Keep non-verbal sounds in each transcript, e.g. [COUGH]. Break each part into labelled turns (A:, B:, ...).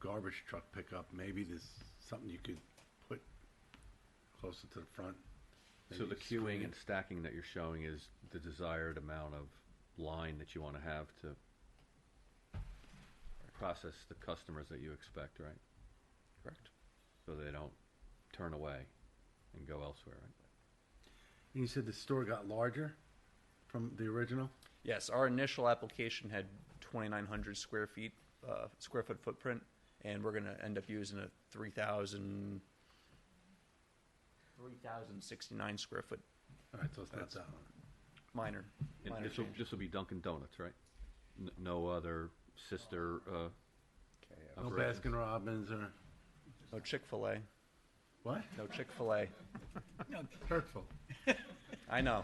A: garbage truck pickup, maybe there's something you could put closer to the front.
B: So
A: maybe
B: the
A: screen
B: queuing and stacking that you're showing is the desired amount of line that you want to have to process the customers that you expect, right?
C: Correct.
B: So they don't turn away and go elsewhere, right?
A: And you said the store got larger from the original?
C: Yes, our initial application had 2,900 square feet, uh, square foot footprint, and we're going to end up using a 3,000, 3,069 square foot
A: All right, so it's not that one.
C: minor. minor
B: And this will,
C: change.
B: this will be Dunkin' Donuts, right? N- No other sister, uh,
A: No
B: Operations.
A: Baskin Robbins or,
C: No Chick-fil-A,
A: what?
C: no Chick-fil-A.
A: Hurtful.
C: I know,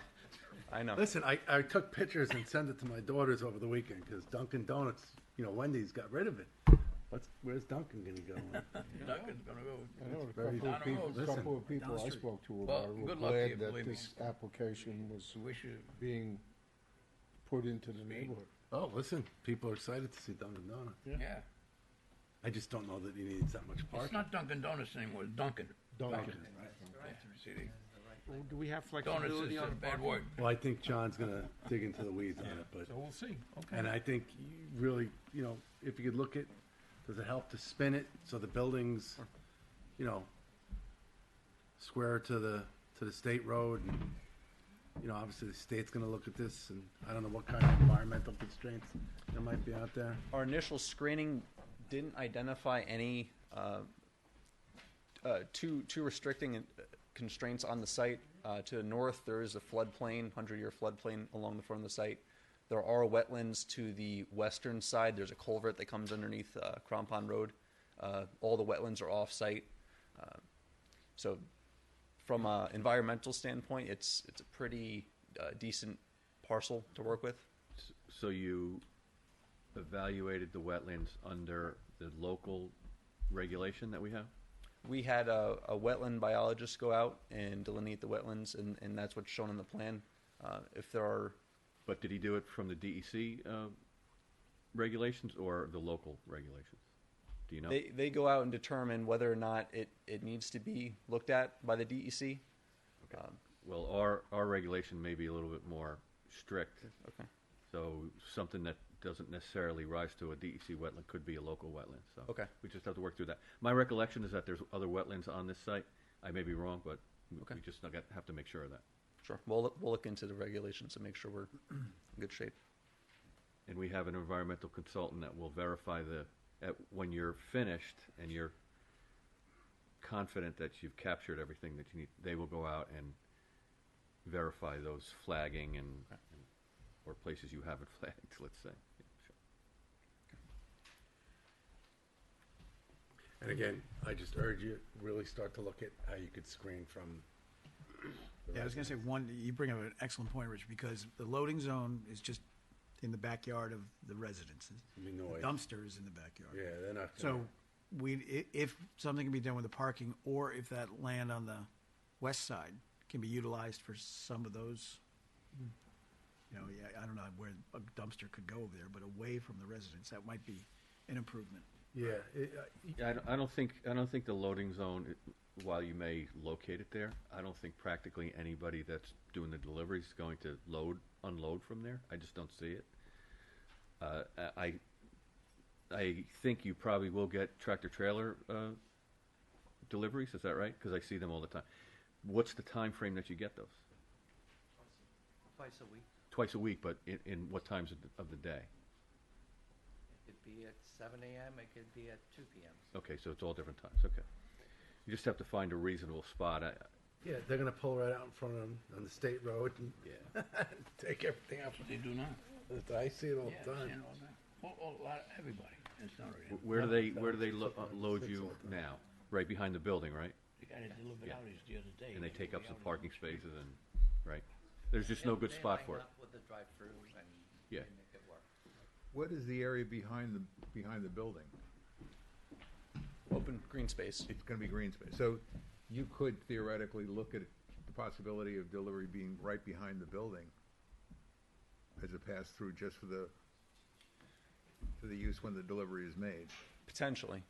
C: I know.
A: Listen, I, I took pictures and sent it to my daughters over the weekend because Dunkin' Donuts, you know, Wendy's got rid of it. What's, where's Dunkin' gonna
B: [LAUGHS]
A: go?
D: Duncan's gonna go.
E: I know a
A: very
E: couple
A: down
E: of
A: the
E: people,
A: road.
E: couple of people I spoke to
D: Well,
E: about it were
D: good luck to you,
E: glad that
D: believe me.
E: this application was
D: Wish you,
E: being put into the neighborhood.
A: Oh, listen, people are excited to see Dunkin' Donuts.
D: yeah.
A: I just don't know that he needs that much
D: It's
A: parking. Oh,
D: not Dunkin' Donuts anymore, it's Dunkin'.
E: Dunkin'.
D: Yeah, see, they-
F: Do we have
D: Donuts is
F: flexibility
D: a
F: on
D: bad word.
A: Well, I think John's gonna dig into the weeds on it, but,
F: we'll see.
A: and I think you really, you know, if you could look at, does it help to spin it so the buildings, you know, square to the, to the state road and, you know, obviously the state's gonna look at this and I don't know what kind of environmental constraints there might be out there.
C: Our initial screening didn't identify any uh, uh, too too restricting uh, constraints on the site. Uh, to the north, there is a floodplain, hundred-year floodplain along the front of the site. There are wetlands to the western side. There's a culvert that comes underneath uh, Crom Pond Road. Uh, all the wetlands are off-site, Uh, so from an environmental standpoint, it's it's a pretty uh, decent parcel to work with.
B: s- so you evaluated the wetlands under the local regulation that we have?
C: We had a, a wetland biologist go out and delineate the wetlands, and, and that's what's shown in the plan. Uh, if there are,
B: But did he do it from the DEC uh, regulations or the local regulations? Do you know?
C: they, they go out and determine whether or not it, it needs to be looked at by the DEC. Um,
B: Well, our, our regulation may be a little bit more strict,
C: okay.
B: so something that doesn't necessarily rise to a DEC wetland could be a local wetland, so.
C: Okay.
B: We just have to work through that. My recollection is that there's other wetlands on this site. I may be wrong, but we-
C: Okay.
B: we just not got- have to make sure of that.
C: Sure. We'll, look- we'll look into the regulations to make sure we're in good shape.
B: And we have an environmental consultant that will verify the, at, when you're finished and you're confident that you've captured everything that you need, they will go out and verify those flagging and, or places you haven't [LAUGHS] flagged, let's say. Yeah, sure.
A: And again, I just urge you, really start to look at how you could screen from. the
F: Yeah, I was gonna say, one, you bring up an excellent point, Rich, because the loading zone is just in the backyard of the residences.
A: Be noise.
F: The dumpster is in the backyard.
A: Yeah, they're not.
F: So we, i- if something can be done with the parking, or if that land on the west side can be utilized for some of those, you know, yeah, I don't know where a dumpster could go over there, but away from the residence, that might be an improvement.
A: Yeah, it, uh,
B: Yeah, I don't, I don't think, I don't think the loading zone, it- while you may locate it there, I don't think practically anybody that's doing the deliveries is going to load, unload from there. I just don't see it. Uh, I, I- I think you probably will get tractor trailer, uh, deliveries, is that right? Cause I see them all the time. What's the time frame that you get those?
G: Twice a week.
B: Twice a week, but in, in what times of the, of the day?
G: It could be at seven AM, it could be at two PM.
B: Okay, so it's all different times, okay. You just have to find a reasonable spot. I,
A: yeah, they're gonna pull right out in front of them on the state road and
B: yeah.
A: take everything out.
D: That's what they do now.
A: I see it all
D: Yeah,
A: the
D: you
A: time.
D: know, that- well, a lot, everybody, it's not really,
B: Where do they, where do they
A: Six
B: lo- uh,
A: of them,
B: load
A: six
B: you
A: of them.
B: now? Right behind the building, right?
D: they got it delivered out is the other day.
B: And they take up some
D: delivered out.
B: parking spaces and, right? There's just no good
G: They
B: spot
G: line
B: for it.
G: up With the drive-through and
B: Yeah.
G: they make it work.
H: What is the area behind the, behind the building?
C: Open green space.
H: It's gonna be green space, so you could theoretically look at the possibility of delivery being right behind the building as a pass-through just for the, for the use when the delivery is made.
C: Potentially,